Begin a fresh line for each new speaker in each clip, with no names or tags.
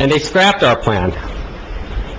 and they scrapped our plan.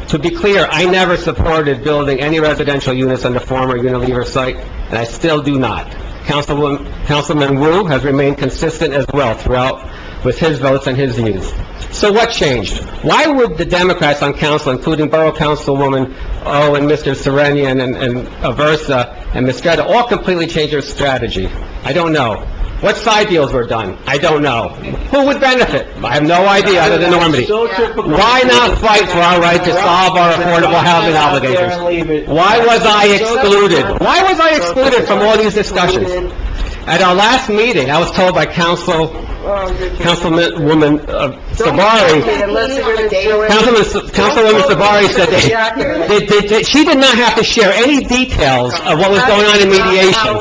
To be clear, I never supported building any residential units on the former Unilever site, and I still do not. Councilwoman, Councilman Wu has remained consistent as well throughout with his votes and his views. So what changed? Why would the Democrats on council, including Borough Councilwoman O and Mr. Serenian and, and Aversa and Mistretta, all completely change their strategy? I don't know. What side deals were done? I don't know. Who would benefit? I have no idea, other than Normandy.
So typical.
Why not fight for our right to solve our affordable housing obligations? Why was I excluded? Why was I excluded from all these discussions? At our last meeting, I was told by Council, Councilwoman uh, Sabari, Councilman, Councilwoman Sabari said that, they- they- they- she did not have to share any details of what was going on in mediation.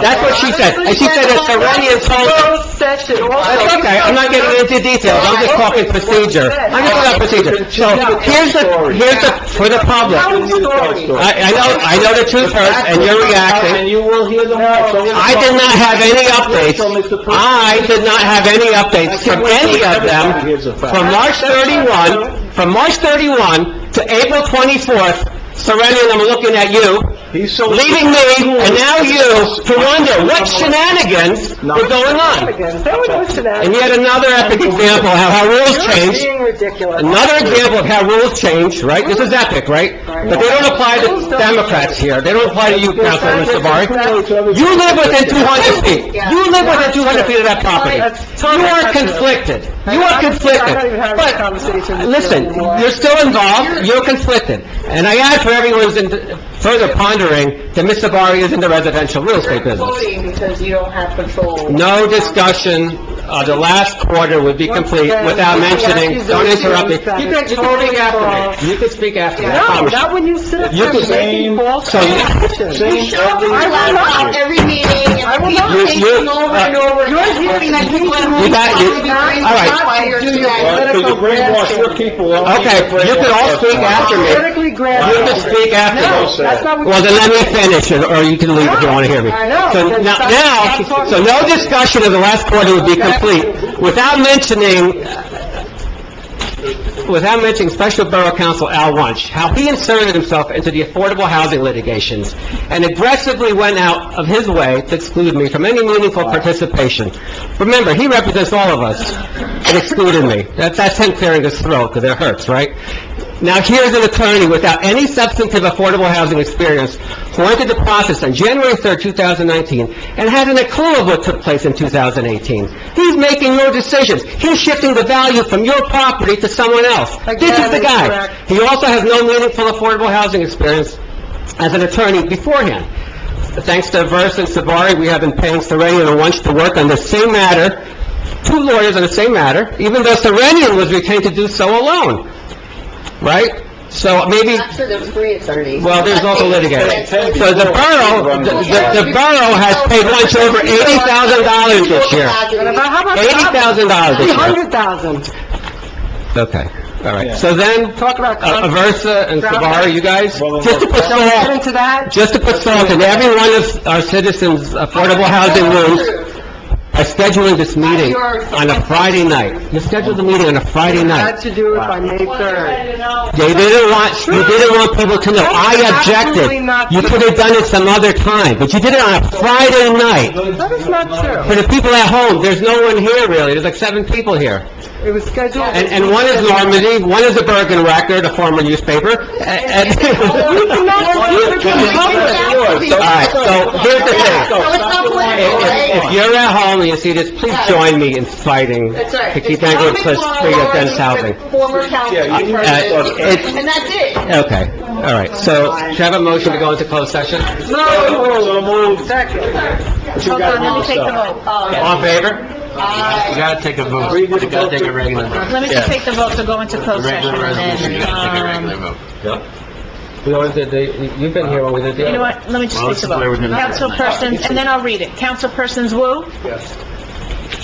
That's what she said, and she said that Serenian told her.
session
That's okay, I'm not getting into details, I'm just talking procedure. I'm just talking procedure. So, here's the, here's the, for the public. I, I know, I know the truth hurts, and you're
And
reacting.
you will hear them.
I did not have any updates. I did not have any updates from any of them from March 31, from March 31 to April 24th. Serenian, I'm looking at you,
He's so...
leaving me, and now you, to wonder what shenanigans were going on. And yet another epic example of how rules change.
Being ridiculous.
Another example of how rules change, right? This is epic, right? But they don't apply to Democrats here. They don't apply to you, Councilman Savari. You live within 200 feet. You live within 200 feet of that property. You are conflicted. You are conflicted. But, listen, you're still involved, you're conflicted. And I add for everyone who's in further pondering that Ms. Savari is in the residential real estate business.
Voting because you don't have control.
No discussion of the last quarter would be complete without mentioning, don't interrupt me. You can, you can speak after me. You can speak after me, I
No,
promise you.
not when you sit up
You
there
can-
making false
So you-
accusations.
Same every-
I will not.
every meeting, and
will
people
not.
You- you-
taking over and over, and hoping that people at home...
You got- you- all right.
Well, Because you brainwash your people.
Okay, you can all speak after me.
Politically
You
granted.
can speak after me.
That's not what.
Well, then let me finish, and- or you can leave if you want to hear me.
I know.
So now, now, so no discussion of the last quarter would be complete without mentioning, without mentioning Special Borough Counsel Al Wunsch, how he inserted himself into the affordable housing litigations and aggressively went out of his way to exclude me from any meaningful participation. Remember, he represents all of us, and excluded me. That- That's him clearing his throat, because it hurts, right? Now, here's an attorney without any substantive affordable housing experience who entered the process on January 3rd, 2019, and hasn't a clue of what took place in 2018. He's making your decisions. He's shifting the value from your property to someone else. This is the
Again,
guy.
correct.
He also has no meaningful affordable housing experience as an attorney beforehand. Thanks to Versa and Savari, we have been paying Serenian and Wunsch to work on the same matter, two lawyers on the same matter, even though Serenian was retained to do so alone, right? So maybe,
Actually, there was three attorneys.
well, there's also litigators. So the borough, the- the the borough has paid Wunsch over $80,000 this year.
And about how much?
$80,000 this year.
Hundred thousand.
Okay, all right. So then,
Talk about.
uh, Versa and Savari, you guys, just to put
Don't get
salt,
into that.
just to put salt in every one of our citizens' affordable housing rooms, by scheduling this meeting on a Friday night. You scheduled the meeting on a Friday
Had
night.
to do it by May third.
They didn't want, you didn't want people to know. I objected. You could have done it some other time, but you did it on a Friday night.
That is not true.
For the people at home, there's no one here really, there's like seven people here.
It was scheduled.
And, and one is Normandy, one is the Bergen Record, a former newspaper, and...
You cannot do it in public.
All right, so here's the thing.
So it's not political,
If if
right?
you're at home and you see this, please join me in fighting
That's right.
to keep Anglo Cliffs free of dense housing.
Former council.
Yeah, you-
Uh, it's-
And that's it.
Okay, all right. So, should I have a motion to go into closed session?
So moved. But you gotta read this out.
Uh,
All in favor? You
I-
gotta take a vote.
Read what
You gotta
the vote
take a regular vote.
Let me
Yeah.
just take the vote to go into closed session
Regular resolution, you
and,
gotta take a regular
um,
vote. We always did the, you've been here when we did the...
you know what, let me just take the vote. Councilperson, and then I'll read it. Councilpersons Wu? Yes.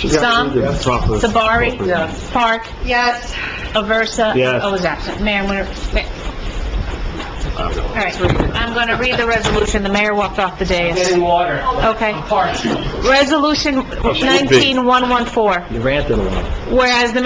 Sung? Sabari? Yes. Park?
Yes.
Aversa?
Yes.
Oh, was absent. Mayor Winter... All right, I'm going to read the resolution. The mayor walked off the dais. Getting water. Okay. Resolution 19114,
You ranted a lot.
whereas the